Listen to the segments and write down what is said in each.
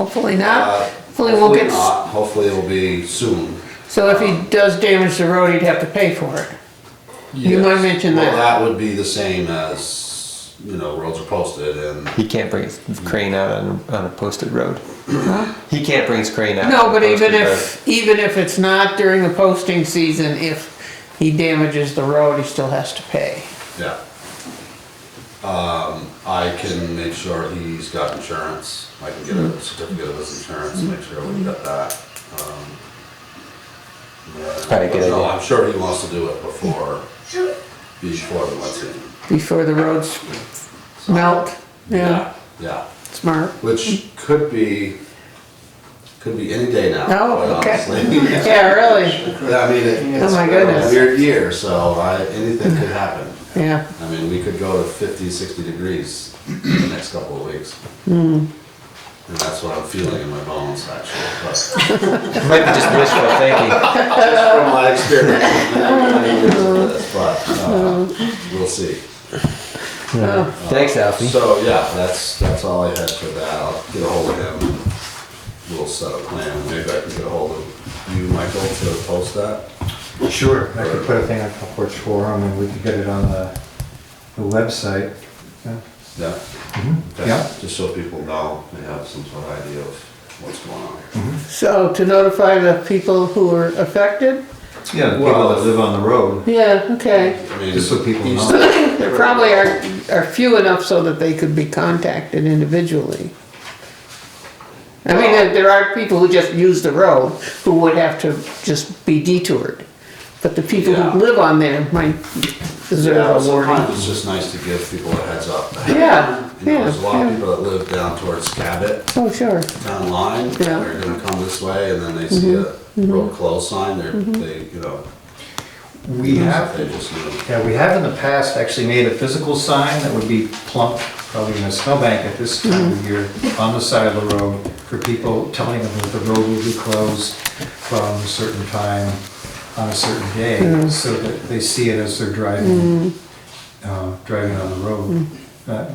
Hopefully not. Uh, Hopefully we'll hopefully get, s- not. Hopefully it'll be soon. so if he does damage the road, he'd have to pay for it. You might Yes. mention Well, that. that would be the same as, you know, roads are posted and, He can't bring his crane out on, on a posted road. He can't bring his crane out. No, on a but even posted if, even if it's not during the posting season, if he damages the road, he still has to pay. yeah. Um, I can make sure he's got insurance. I can get Mm. a certificate of his insurance, make sure we got that. Um, yeah. Probably a good But no, idea. I'm sure he wants to do it before, before the wet season. Before the roads melt. Yeah, Yeah. smart. Which could be, could be any day now. Oh, quite okay. honestly. Yeah, really. I mean, it- Oh it's my been a goodness. weird year, so I, anything could happen. Yeah, I mean, we could go to 50, 60 degrees in the next couple of weeks. Hmm. And that's what I'm feeling in my bones, actually, but just road. Might be just wishful thinking. from my experience. many years of this, But, uh, Hmm. we'll see. Thanks, Alfie. So, yeah, that's, that's all I had for that. I'll get a hold of him. We'll set a plan. Maybe I can get a hold of you, Michael, to post that. Sure, I could put a thing on Front Porch Forum and we could get it on the, the website. Yeah. Mm-hmm. Yeah. Okay. Yeah. Just so people know, they have some sort of idea of what's going on. so to notify the people who are affected? Yeah, the people that live on the road, Yeah, okay. I mean, just so people each- know. There probably are, are few enough so that they could be contacted individually. I mean, there- there are people who just use the road who would have to just be detoured. But the people Yeah. who live on there might deserve a Sometimes warning. it's just nice to give people a heads up. Yeah, You know, yeah, there's a lot of yeah. people that live down towards Cabot, Oh, sure. down line, Yeah. Mm-hmm. they're gonna come this way, and then they see a road closed sign, they're, they, you know, We have, they just knew. yeah, we have in the past actually made a physical sign that would be plump, probably in a snowbank at this time of year, on the side of the road for people telling them that the road will be closed from a certain time on a certain day, so that they see it as they're driving, uh, driving on the road. Uh,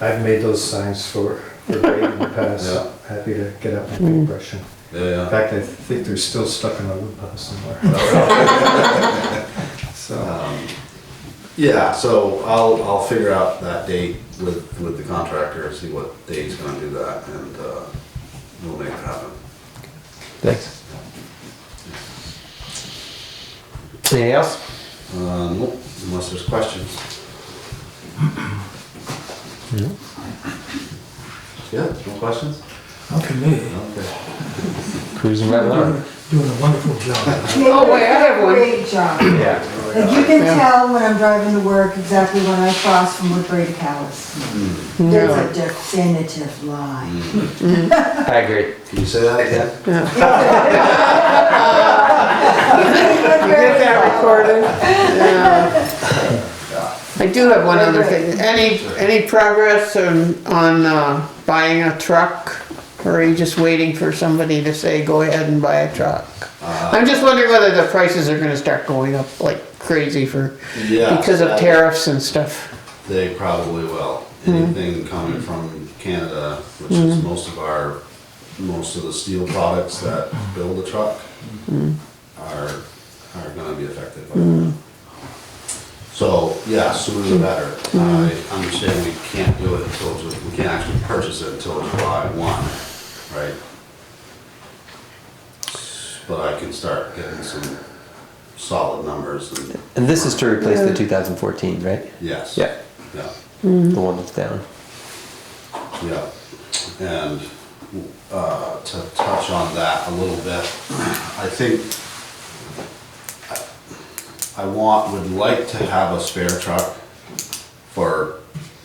I've made those signs for, for Ray in the Yeah. past. Happy to get up and make a impression. In Yeah, Oh, fact, I think they're still stuck in a wood pile somewhere. Ah. So, yeah, so I'll, I'll figure out that date with, with the contractor, see what day he's gonna do that, and, uh, we'll make it happen. Thanks. Anything else? Uh, nope, unless there's questions. Yeah, no questions? Not for me. Okay. Cruising right along. Doing a wonderful job. Oh, wait, I have one. Great job. Yeah. Like you can Yeah. tell when I'm driving to work exactly when I cross from Woodbury to Callis. Mm. There's a definitive line. I agree. Can you say that again? Get that recorded. I do have one other thing. Any, any progress on, on uh, buying a truck? Or are you just waiting for somebody to say, go ahead and buy a truck? Uh, I'm just wondering whether the prices are gonna start going up like crazy for, Yeah. because of tariffs and stuff. They probably will. Anything coming from Canada, which is most of our, most of the steel products that build a truck are, are gonna be affected by that. So, yeah, sooner the better. I understand we can't do it until, Ju- we can't actually purchase it until July one, right? But I can start getting some solid numbers and, And this is to replace the 2014, right? yes. Yeah. Yeah. Mm-hmm. The one that's down. Yeah, and uh, to touch on that a little bit, I think I- I want, would like to have a spare truck for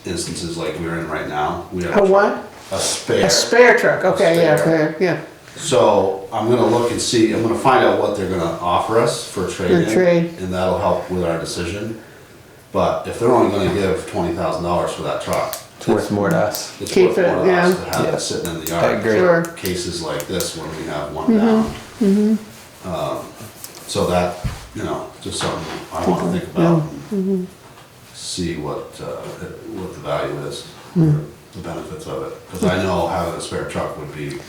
instances like we're in right now. We have A what? A spare. A spare truck, okay, yeah, Spare. fair, yeah. So I'm gonna look and see, I'm gonna find out what they're gonna offer us for trade-in. trade. And that'll help with our decision. But if they're only gonna give twenty thousand dollars for that truck, It's worth more to us. it's Keep worth more it, to yeah. us to have Yeah. it sitting in the yard. I agree. Sure. cases like this when we have one down. Um, So that, you know, just something I want to think about. and See what, uh, what the value is, or the the benefits of it. Because I know having a spare truck would be